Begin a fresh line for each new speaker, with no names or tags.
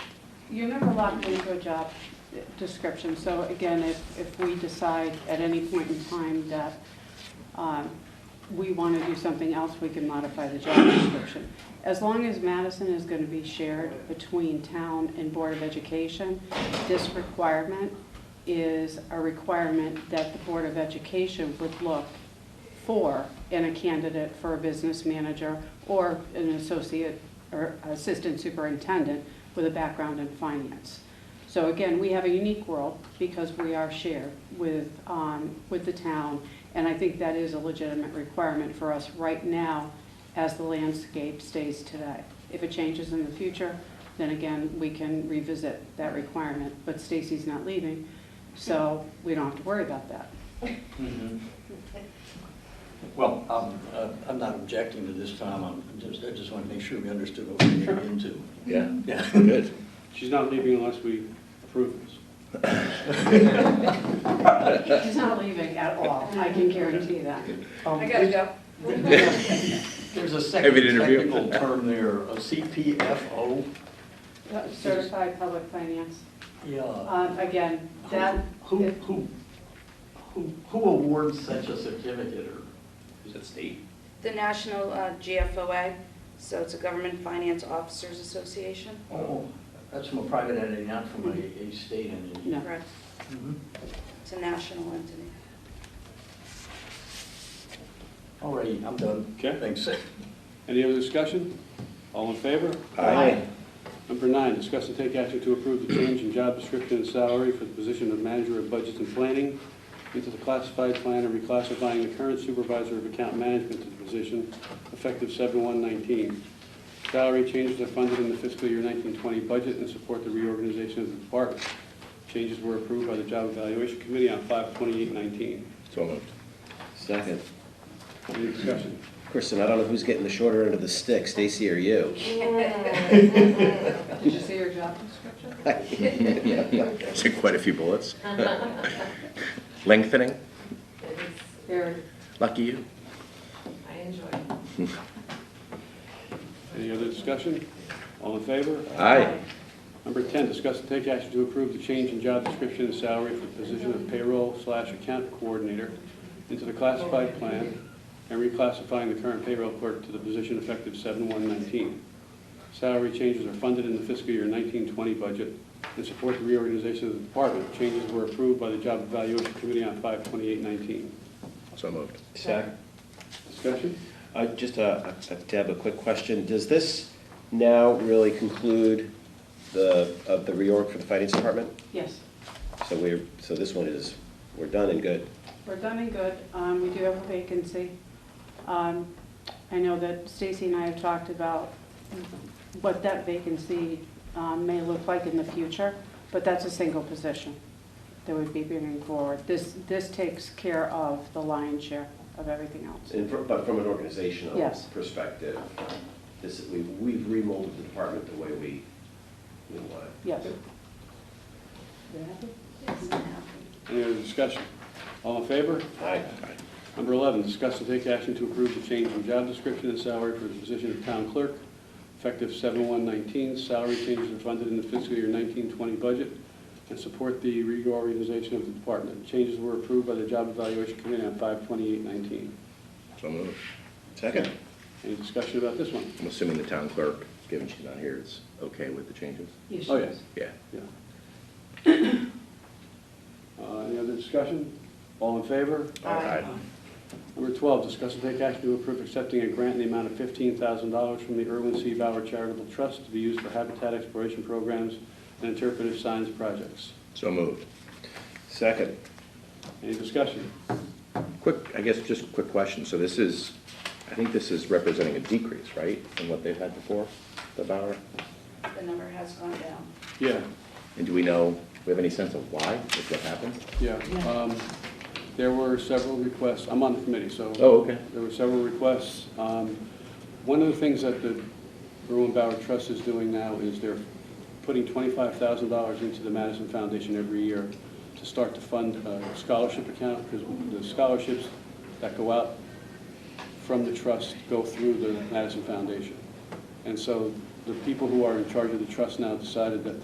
You're never locked into a job description, so again, if, if we decide at any point in time that um, we want to do something else, we can modify the job description. As long as Madison is going to be shared between town and Board of Education, this requirement is a requirement that the Board of Education would look for in a candidate for a business manager or an associate or assistant superintendent with a background in finance. So again, we have a unique world because we are shared with, um, with the town. And I think that is a legitimate requirement for us right now as the landscape stays today. If it changes in the future, then again, we can revisit that requirement. But Stacy's not leaving, so we don't have to worry about that.
Mhm. Well, I'm, uh, I'm not objecting to this, Tom, I'm just, I just want to make sure we understood what we were getting into.
Yeah,
Yeah.
good.
She's not leaving unless we approve this.
She's not leaving at all, I can guarantee that.
I gotta go.
Um, There's a second
Have an interview.
technical term there, a CPFO.
Certified public finance,
Yeah.
Um, again, that,
Uh, Who, who, who, who awards such a certificate or?
Is it state?
The National uh, GFOA, so it's a Government Finance Officers Association.
Oh, that's from a private entity, not from a, a state entity.
No.
Correct.
Mhm.
It's a national entity.
All righty, I'm done.
Okay.
Thanks.
Any other discussion? All in favor?
Aye.
Number nine, discuss and take action to approve the change in job description and salary for the position of manager of budgets and planning into the classified plan and reclassifying the current supervisor of account management to the position effective seven one nineteen. Salary changes are funded in the fiscal year nineteen twenty budget and support the reorganization of the department. Changes were approved by the Job Evaluation Committee on five twenty-eight nineteen.
So moved.
Second.
Any discussion?
Kristen, I don't know who's getting the shorter end of the stick, Stacy or
did
you.
you see your job description?
Is it quite a few bullets? Lengthening?
It is,
There,
Lucky you.
I enjoy it.
Any other discussion? All in favor?
Aye.
Number 10, discuss and take action to approve the change in job description and salary for the position of payroll slash account coordinator into the classified plan and reclassifying the current payroll clerk to the position effective 7/1/19. Salary changes are funded in the fiscal year 1920 budget and support the reorganization of the department. Changes were approved by the Job Evaluation Committee on 5/28/19.
So moved.
Second.
Discussion?
Uh, just a, a- Deb, a quick question. Does this now really conclude the, of the reorg for the finance department?
yes,
So we're, so this one is, we're done and good.
we're done and good, um, we do have a vacancy. Um, I know that Stacy and I have talked about what that vacancy, um, may look like in the future, but that's a single position that would be bringing forward. This, this takes care of the lion's share of everything else.
And, fr- but from an organizational
Yes.
perspective, this, we've, we've remolded the department the way we, we want it.
Yes.
Oh,
Any other discussion? All in favor?
Aye.
Number 11, discuss and take action to approve the change in job description and salary for the position of town clerk, effective 7/1/19. Salary changes are funded in the fiscal year 1920 budget and support the reorganization of the department. Changes were approved by the Job Evaluation Committee on 5/28/19.
So moved.
Second.
Any discussion about this one?
I'm assuming the town clerk, given she's not here, is okay with the changes?
Yes,
Oh, yes.
Yeah.
Yeah. Uh, Any other discussion? All in favor?
Aye.
Number 12, discuss and take action to approve accepting a grant in the amount of $15,000 from the Irwin C. Bauer Charitable Trust to be used for habitat exploration programs and interpretive science projects.
So moved.
Second.
Any discussion?
Quick, I guess, just a quick question. So this is, I think this is representing a decrease, right, in what they've had before, the Bauer?
The number has gone down.
Yeah,
And do we know, do we have any sense of why, if that happened?
yeah. Um, There were several requests, I'm on the committee, so.
Oh, okay.
There were several requests. Um, One of the things that the Irwin Bauer Trust is doing now is they're putting $25,000 into the Madison Foundation every year to start to fund a scholarship account, because the scholarships that go out from the trust go through the Madison Foundation. And so the people who are in charge of the trust now decided that